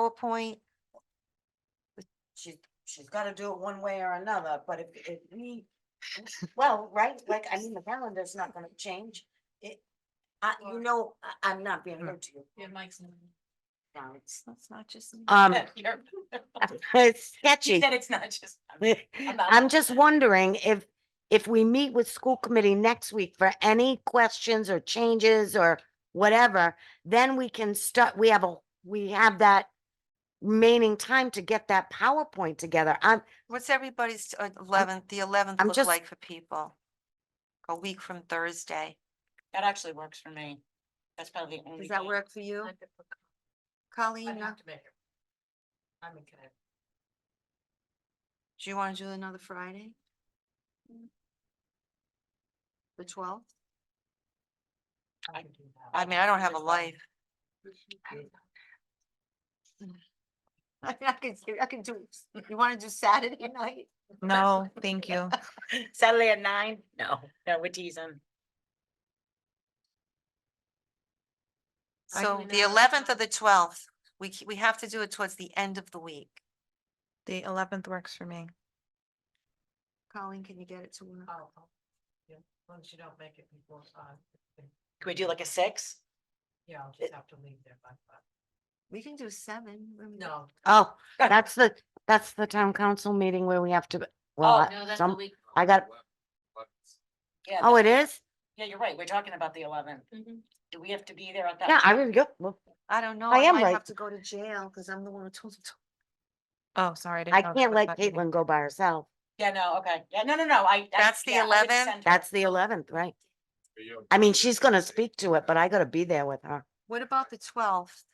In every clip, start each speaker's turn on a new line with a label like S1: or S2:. S1: PowerPoint.
S2: She, she's gotta do it one way or another, but if, if we, well, right, like, I mean, the calendar's not gonna change. It, I, you
S3: Right.
S2: know, I, I'm not being rude to you.
S3: Yeah, Mike's. in
S2: now, it's-
S3: That's not just. me.
S1: Um,
S3: You're-
S1: It's
S3: She
S1: sketchy.
S3: said it's not just. not-
S1: I'm just wondering if, if we meet with school committee next week for any questions or changes or whatever, then we can start, we have a, we have that remaining time to get that PowerPoint together. I'm,
S4: What's everybody's uh, eleventh, the eleventh
S1: I'm
S4: look
S1: just-
S4: like for people? A week from Thursday.
S3: That actually works for me. That's probably the only.
S2: Does that
S3: day.
S2: work for you?
S4: Colleen, uh,
S3: to make it. I'm in Connecticut.
S4: do you want to do another Friday? The twelfth?
S3: I can do that.
S4: I mean, I don't have a life.
S2: I mean, I could, do- I could do, you wanna do Saturday night?
S4: No, thank you.
S3: Saturday at nine? No, no, we're teasing.
S4: So the eleventh or the twelfth, we, c- we have to do it towards the end of the week.
S5: The eleventh works for me.
S4: Colleen, can you get it to work?
S3: long Oh, as you don't make it before five. Can we do like a six? Yeah, I'll just have to leave there by five.
S4: We can do seven. I mean,
S3: No.
S1: oh, that's the, that's the town council meeting where we have
S3: Oh,
S1: to, well, some,
S3: week.
S1: I got,
S3: Uh, Yeah,
S1: oh,
S3: that-
S1: it is?
S3: yeah, you're right. We're talking about the eleventh. Do we have to be there at that?
S1: Yeah, I
S3: time?
S1: will go. Well,
S4: I don't know.
S1: I
S4: I
S1: am
S4: might
S1: right.
S4: have to go to jail because I'm the one who told the
S5: Oh, sorry. didn't
S1: I
S5: know that
S1: can't
S5: was
S1: let
S5: that meeting.
S1: Caitlin go by herself.
S3: Yeah, no, okay. Yeah, no, no, no, I. I-
S4: That's the
S3: yeah, I would
S4: 11th?
S3: send her.
S1: That's the eleventh, right? I mean, she's gonna speak to it, but I gotta be there with her.
S4: What about the twelfth?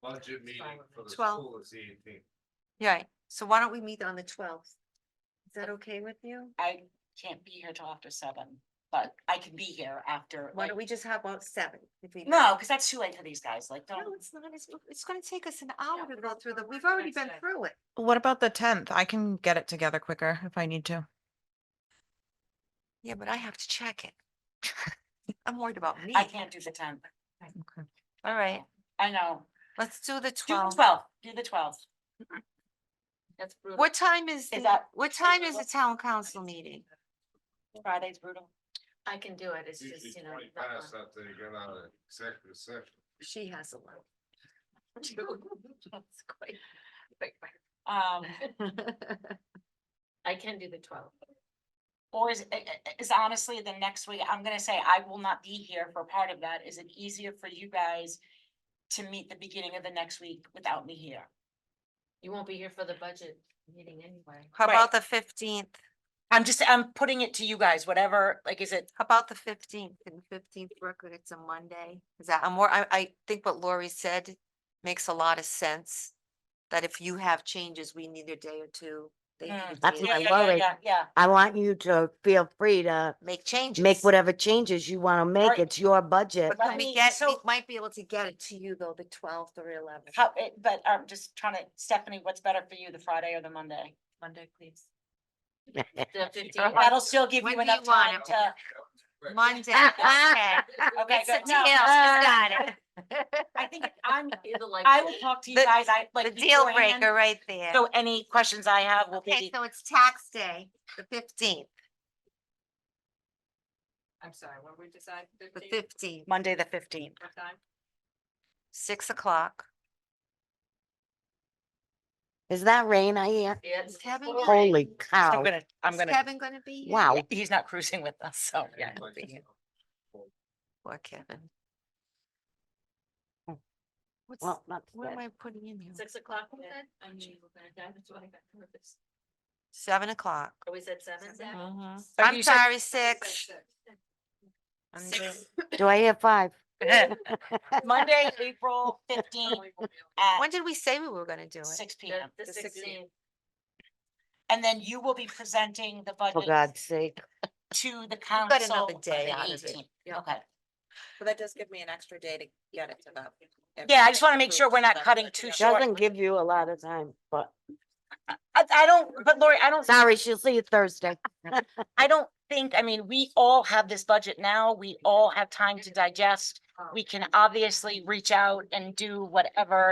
S6: Budget meeting for the
S4: 12.
S6: school is the eighteenth.
S4: Right, so why don't we meet on the twelfth? Is that okay with you?
S3: I can't be here till after seven, but I can be here after.
S4: Why
S3: like-
S4: don't we just have about seven? if we-
S3: No, because that's too late for these guys, like,
S4: No,
S3: don't.
S4: it's not, it's, it's gonna take us an hour
S3: we're
S4: to go
S3: gonna
S4: through
S3: go
S4: them,
S3: through
S4: we've
S3: the
S4: already
S3: next
S4: been
S3: day.
S4: through it.
S5: What about the tenth? I can get it together quicker if I need to.
S4: Yeah, but I have to check it. I'm worried about me.
S3: I can't do the tenth.
S5: Okay.
S4: All right,
S3: I know.
S4: let's do the
S3: Do the
S4: twelfth.
S3: twelfth, do the twelfth. Mm-hmm. That's brutal.
S4: What time is,
S3: Is
S4: the-
S3: that-
S4: what time is the town council meeting?
S3: Friday's brutal.
S2: I can do it, it's
S6: Usually twenty past after you get out of executive session.
S2: She has a lot.
S3: Um,
S2: I can do the twelve.
S3: or is, i- i- is honestly the next week, I'm gonna say I will not be here for part of that. Is it easier for you guys to meet the beginning of the next week without me here?
S2: You won't be here for the budget meeting anyway.
S4: How
S3: Right.
S4: about the fifteenth?
S3: I'm just, I'm putting it to you guys, whatever, like, is it,
S4: How about the fifteenth? Can fifteenth work when it's a Monday? Is that, I'm more, I, I think what Lori said makes a lot of sense. That if you have changes, we need a day or two. They need
S3: Mm.
S4: a
S1: That's
S4: day
S1: what
S3: yeah,
S1: I
S4: to
S3: yeah, yeah,
S1: worry.
S3: yeah, yeah.
S1: I want you to feel free to
S4: Make changes.
S1: make whatever changes you want to make.
S3: Right.
S1: It's your budget.
S4: But can
S3: Let
S4: we
S3: me-
S4: get, we
S3: so-
S4: might be able to get it to you though, the twelfth or eleventh.
S3: How, it- but I'm just trying to, Stephanie, what's better for you, the Friday or the Monday?
S2: Monday, please.
S3: That'll still give
S4: When
S3: you
S4: do
S3: enough
S4: you want
S3: time
S4: it?
S3: to,
S4: Monday, okay.
S3: okay,
S4: It's a
S3: good,
S4: deal.
S3: no. uh,
S4: Got
S3: I
S4: it.
S3: think I'm, I will talk to you
S4: The-
S3: guys, I
S4: The
S3: like.
S4: deal
S3: beforehand,
S4: breaker right there.
S3: So any questions I have will
S4: Okay,
S3: be,
S4: so it's tax day, the fifteenth,
S7: I'm sorry, when we decide
S4: the
S7: fifteen,
S4: fifteenth,
S3: Monday, the fifteenth.
S7: what time?
S4: six o'clock.
S1: Is that rain I hear?
S4: Is Kevin, gonna-
S1: Holy
S3: I'm
S1: cow.
S3: gonna, I'm
S4: is
S3: gonna,
S4: Oh. Kevin gonna be? here?
S1: Wow.
S3: he's not cruising with us,
S1: Oh,
S3: so, yeah. he'll be here.
S4: Poor Kevin. What's,
S1: Well, not
S4: what am
S1: bad.
S4: I putting in here?
S7: Oh. Six o'clock, we said? I knew you were gonna die, that's why I got nervous.
S4: Seven o'clock.
S7: Oh, we said seven, Zach?
S4: Mhm.
S3: But
S4: I'm
S3: you said-
S4: sorry,
S7: You said
S4: six.
S7: six.
S4: Six.
S1: Do I hear five?
S3: Monday, April
S7: Oh,
S3: fifteenth
S4: When
S3: at
S4: did we say we were gonna do it?
S3: six P M.
S7: The the
S4: The 16th.
S7: sixteenth.
S3: And then you will be presenting the
S1: For
S3: budget
S1: God's sake.
S3: to the
S4: Oh, got
S3: council
S4: another
S3: on
S4: day
S3: the
S4: out of it.
S3: 18th.
S4: Yeah.
S3: Okay.
S7: Well, that does give me an extra day to get it to them.
S3: Yeah, I just wanna make sure we're not cutting too short.
S1: Doesn't give you a lot of time, but
S3: I, I don't, but Lori, I don't. think-
S1: sorry, she'll see you Thursday.
S3: I don't think, I mean, we all have this budget now. We all have time to digest.
S7: Oh.
S3: we can obviously reach out and do whatever